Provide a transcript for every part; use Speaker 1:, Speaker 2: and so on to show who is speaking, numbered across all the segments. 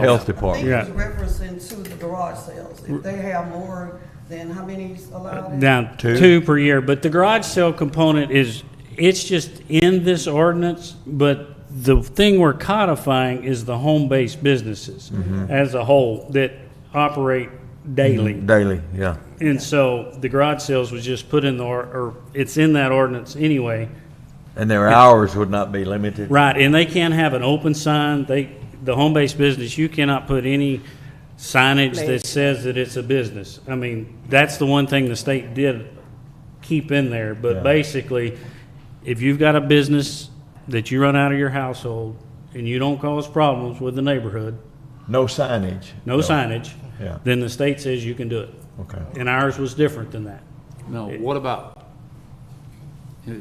Speaker 1: Health
Speaker 2: I think
Speaker 1: Department.
Speaker 2: it's
Speaker 3: Yeah.
Speaker 2: referencing to the garage sales. If they have more than how many is allowed? in?
Speaker 3: Down two per year, but the garage sale component is, it's just in this ordinance, but the thing we're codifying is the home-based businesses as a whole that operate daily.
Speaker 1: Daily, yeah.
Speaker 3: And so the garage sales was just put in the, or, or it's in that ordinance anyway.
Speaker 1: And their hours would not be limited.
Speaker 3: Right, and they can't have an open sign, they, the home-based business, you cannot put any signage that says that it's a business. I mean, that's the one thing the state did keep in there,
Speaker 1: Yeah.
Speaker 3: but basically, if you've got a business that you run out of your household and you don't cause problems with the neighborhood,
Speaker 1: No signage.
Speaker 3: no signage,
Speaker 1: Yeah.
Speaker 3: then the state says you can do it.
Speaker 1: Okay.
Speaker 3: And ours was different than that.
Speaker 4: No, what about, uh,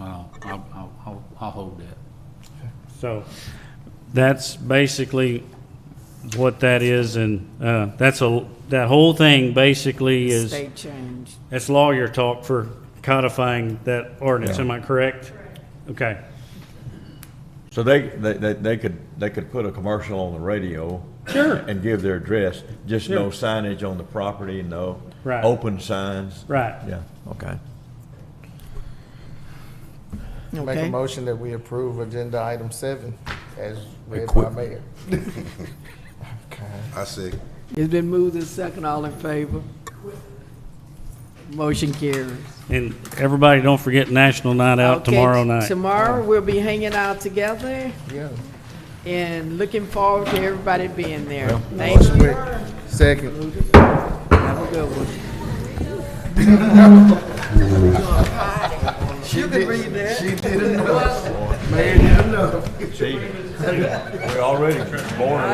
Speaker 4: well, I'll, I'll- I'll, I'll hold that.
Speaker 3: So that's basically what that is, and uh, that's a, that whole thing basically is,
Speaker 5: State change.
Speaker 3: that's lawyer talk for codifying that ordinance, am I correct? Okay,
Speaker 1: So they, they, they- they could, they could put a commercial on the radio.
Speaker 3: Sure.
Speaker 1: And give their address, just no
Speaker 3: Sure.
Speaker 1: signage on the property, no.
Speaker 3: Right.
Speaker 1: Open signs.
Speaker 3: right.
Speaker 1: Yeah, okay.
Speaker 6: Make a
Speaker 5: Okay.
Speaker 6: motion that we approve agenda item seven as read by mayor.
Speaker 7: I see.
Speaker 5: It's been moved and second. All in favor? Motion carries.
Speaker 3: And everybody, don't forget National Night Out
Speaker 5: Okay,
Speaker 3: tomorrow night.
Speaker 5: Tomorrow, we'll be hanging out together
Speaker 6: Yeah.
Speaker 5: and looking forward to everybody being there. Thank you.
Speaker 6: Quick. Second.
Speaker 5: Have a good one.
Speaker 6: You can read that. She did enough.
Speaker 1: See, we're already born